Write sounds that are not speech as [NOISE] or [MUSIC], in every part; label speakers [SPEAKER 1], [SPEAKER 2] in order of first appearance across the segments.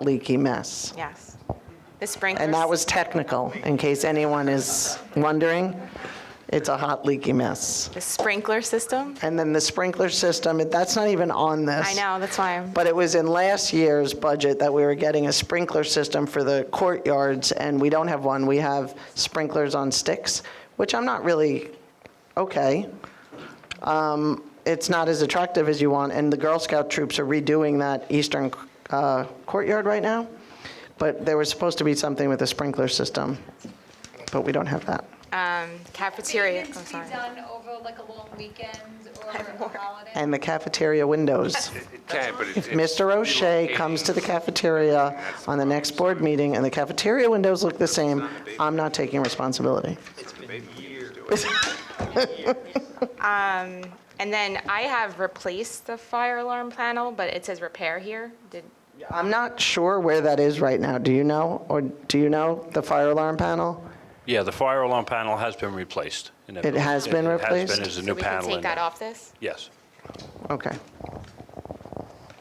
[SPEAKER 1] leaky mess.
[SPEAKER 2] Yes. The sprinklers.
[SPEAKER 1] And that was technical, in case anyone is wondering. It's a hot leaky mess.
[SPEAKER 2] The sprinkler system?
[SPEAKER 1] And then the sprinkler system, it- that's not even on this.
[SPEAKER 2] I know, that's why I'm,
[SPEAKER 1] But it was in last year's budget that we were getting a sprinkler system for the courtyards, and we don't have one. We have sprinklers on sticks, which I'm not really, okay. Um, It's not as attractive as you want, and the Girl Scout troops are redoing that eastern uh, courtyard right now. But there was supposed to be something with a sprinkler system, but we don't have that.
[SPEAKER 2] um, cafeteria, I'm
[SPEAKER 3] Maintenance
[SPEAKER 2] sorry.
[SPEAKER 3] be done over like a long weekend
[SPEAKER 2] [LAUGHS]
[SPEAKER 3] or a holiday?
[SPEAKER 1] And the cafeteria windows.
[SPEAKER 4] It can, but it's.
[SPEAKER 1] Mr. O'Shea comes to the cafeteria on the next board meeting, and the cafeteria windows look the same, I'm not taking responsibility.
[SPEAKER 2] And then I have replaced the fire alarm panel, but it says repair here. Did,
[SPEAKER 1] I'm not sure where that is right now. Do you know, or do you know the fire alarm panel?
[SPEAKER 5] Yeah, the fire alarm panel has been replaced. in that
[SPEAKER 1] It has
[SPEAKER 5] building.
[SPEAKER 1] been
[SPEAKER 5] It has
[SPEAKER 1] replaced?
[SPEAKER 5] been, there's a
[SPEAKER 2] so
[SPEAKER 5] new
[SPEAKER 2] we can
[SPEAKER 5] panel in
[SPEAKER 2] take that
[SPEAKER 5] there.
[SPEAKER 2] off this?
[SPEAKER 5] Yes.
[SPEAKER 1] Okay.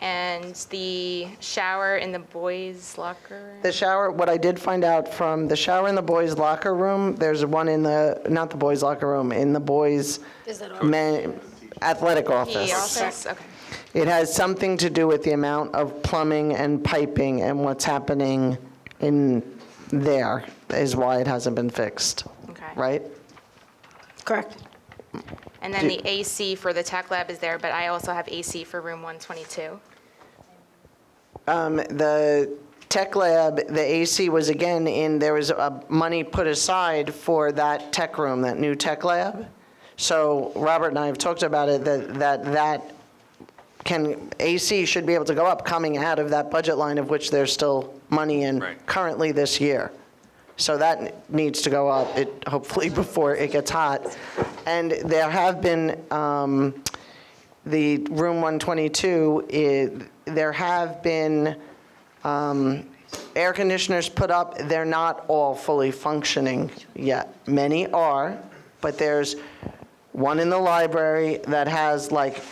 [SPEAKER 2] And the shower in the boys' locker?
[SPEAKER 1] The shower, what I did find out from the shower in the boys' locker room, there's one in the, not the boys' locker room, in the boys' men- athletic
[SPEAKER 2] The
[SPEAKER 1] office.
[SPEAKER 2] office, okay.
[SPEAKER 1] It has something to do with the amount of plumbing and piping and what's happening in there is why it hasn't been fixed,
[SPEAKER 2] Okay.
[SPEAKER 1] right?
[SPEAKER 6] Correct.
[SPEAKER 2] And then the AC for the tech lab is there, but I also have AC for room 122.
[SPEAKER 1] um, The tech lab, the AC was again in, there was uh, money put aside for that tech room, that new tech lab. So Robert and I have talked about it, that, that, that can, AC should be able to go up coming out of that budget line of which there's still money in
[SPEAKER 4] Right.
[SPEAKER 1] currently this year. So that needs to go up, it, hopefully [LAUGHS] before it gets hot. And there have been, um, the room 122, i- there have been um, air conditioners put up. They're not all fully functioning yet. Many are, but there's one in the library that has like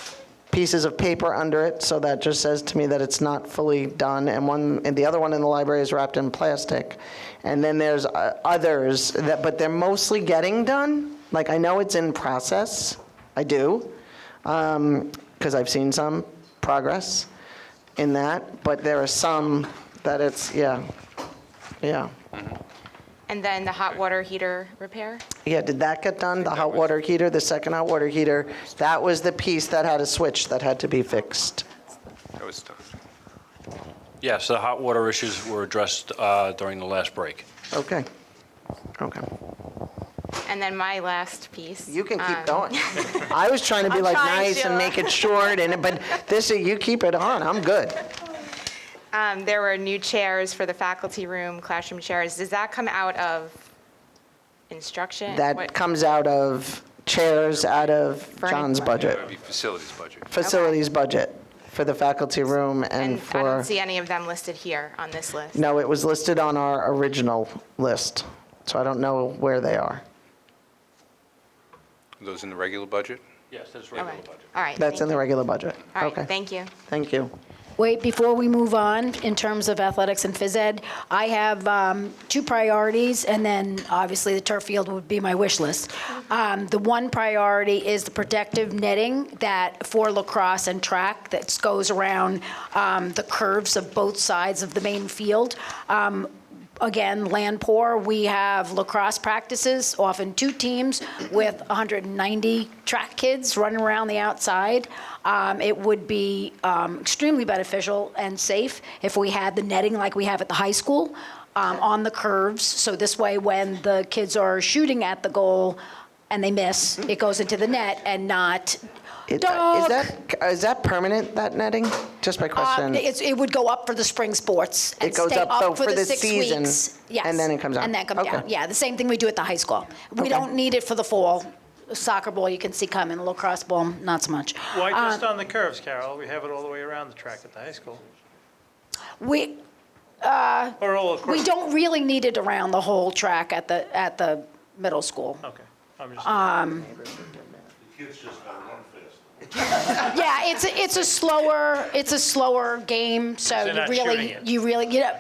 [SPEAKER 1] pieces of paper under it, so that just says to me that it's not fully done, and one, and the other one in the library is wrapped in plastic. And then there's uh, others that, but they're mostly getting done. Like, I know it's in process, I do, because I've seen some progress in that, but there are some that it's, yeah, yeah.
[SPEAKER 2] And then the hot water heater repair?
[SPEAKER 1] Yeah, did that get done? The hot water heater, the second hot water heater, that was the piece that had a switch that had to be fixed.
[SPEAKER 4] That was tough.
[SPEAKER 5] Yes, the hot water issues were addressed uh, during the last break.
[SPEAKER 1] Okay, okay.
[SPEAKER 2] And then my last piece.
[SPEAKER 1] You can
[SPEAKER 2] um,
[SPEAKER 1] keep going.
[SPEAKER 2] [LAUGHS]
[SPEAKER 1] I was trying to be
[SPEAKER 2] I'm
[SPEAKER 1] like
[SPEAKER 2] trying
[SPEAKER 1] nice and
[SPEAKER 2] to.
[SPEAKER 1] make it short, and, but this, you keep it on, I'm good.
[SPEAKER 2] Um, there were new chairs for the faculty room, classroom chairs. Does that come out of instruction?
[SPEAKER 1] That
[SPEAKER 2] What-
[SPEAKER 1] comes out of chairs, out of John's budget,
[SPEAKER 4] That would be facilities budget.
[SPEAKER 1] facilities budget for the faculty room and
[SPEAKER 2] And
[SPEAKER 1] for.
[SPEAKER 2] I don't see any of them listed here on this list.
[SPEAKER 1] No, it was listed on our original list, so I don't know where they are.
[SPEAKER 4] Those in the regular budget?
[SPEAKER 5] Yes, that's
[SPEAKER 2] Okay.
[SPEAKER 5] regular
[SPEAKER 2] All right.
[SPEAKER 1] That's in
[SPEAKER 2] thank
[SPEAKER 1] the
[SPEAKER 2] you.
[SPEAKER 1] regular budget.
[SPEAKER 2] All
[SPEAKER 1] Okay.
[SPEAKER 2] right, thank you.
[SPEAKER 1] Thank you.
[SPEAKER 6] Wait, before we move on, in terms of athletics and phys ed, I have um, two priorities, and then obviously the turf field would be my wish list. Um, The one priority is the protective netting that, for lacrosse and track, that goes around um, the curves of both sides of the main field. Um, again, land poor. We have lacrosse practices, often two teams with 190 track kids running around the outside. Um, it would be um, extremely beneficial and safe if we had the netting like we have at the high school um, on the curves. So this way, when the kids are shooting at the goal and they miss, it goes into the net and not.
[SPEAKER 1] Is that-
[SPEAKER 6] "Duck!"
[SPEAKER 1] is that, is that permanent, that netting? Just my
[SPEAKER 6] Uh,
[SPEAKER 1] question.
[SPEAKER 6] it's- It would go up for the spring sports and
[SPEAKER 1] It goes
[SPEAKER 6] stay
[SPEAKER 1] up, though,
[SPEAKER 6] up for
[SPEAKER 1] for
[SPEAKER 6] the
[SPEAKER 1] the
[SPEAKER 6] six
[SPEAKER 1] season,
[SPEAKER 6] weeks. Yes.
[SPEAKER 1] and then it comes
[SPEAKER 6] And
[SPEAKER 1] down.
[SPEAKER 6] then come
[SPEAKER 1] Okay.
[SPEAKER 6] down. Yeah, the same thing we do at the high school. We
[SPEAKER 1] Okay.
[SPEAKER 6] don't need it for the fall. Soccer ball, you can see coming, lacrosse ball, not so much.
[SPEAKER 7] Why
[SPEAKER 6] Uh,
[SPEAKER 7] just on the curves, Carol? We have it all the way around the track at the high school.
[SPEAKER 6] We,
[SPEAKER 7] Or oh, all across.
[SPEAKER 6] we don't really need it around the whole track at the, at Uh, the middle school.
[SPEAKER 7] Okay, I'm just.
[SPEAKER 6] Yeah, it's, a- it's a slower, it's a slower game, so
[SPEAKER 7] So
[SPEAKER 6] you
[SPEAKER 7] they're not shooting
[SPEAKER 6] really,
[SPEAKER 7] it.
[SPEAKER 6] you really, you know,